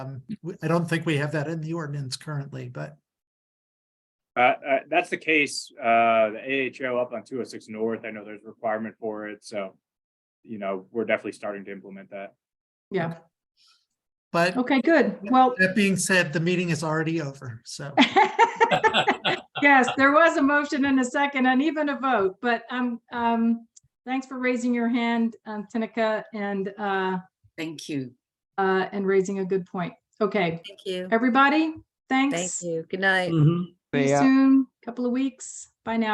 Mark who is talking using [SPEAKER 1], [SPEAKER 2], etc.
[SPEAKER 1] Um, we- I don't think we have that in the ordinance currently, but
[SPEAKER 2] Uh, uh, that's the case, uh, the AHO up on two oh six north, I know there's a requirement for it, so. You know, we're definitely starting to implement that.
[SPEAKER 3] Yeah,
[SPEAKER 1] but
[SPEAKER 3] okay, good. Well,
[SPEAKER 1] that being said, the meeting is already over, so.
[SPEAKER 3] yes, there was a motion and a second and even a vote, but um, um, thanks for raising your hand, um, Tinica, and uh,
[SPEAKER 4] Thank you.
[SPEAKER 3] uh, and raising a good point. Okay,
[SPEAKER 4] Thank you.
[SPEAKER 3] everybody,
[SPEAKER 4] Thank
[SPEAKER 3] thanks. See
[SPEAKER 4] you. Good night.
[SPEAKER 3] you soon, couple of weeks. Bye now.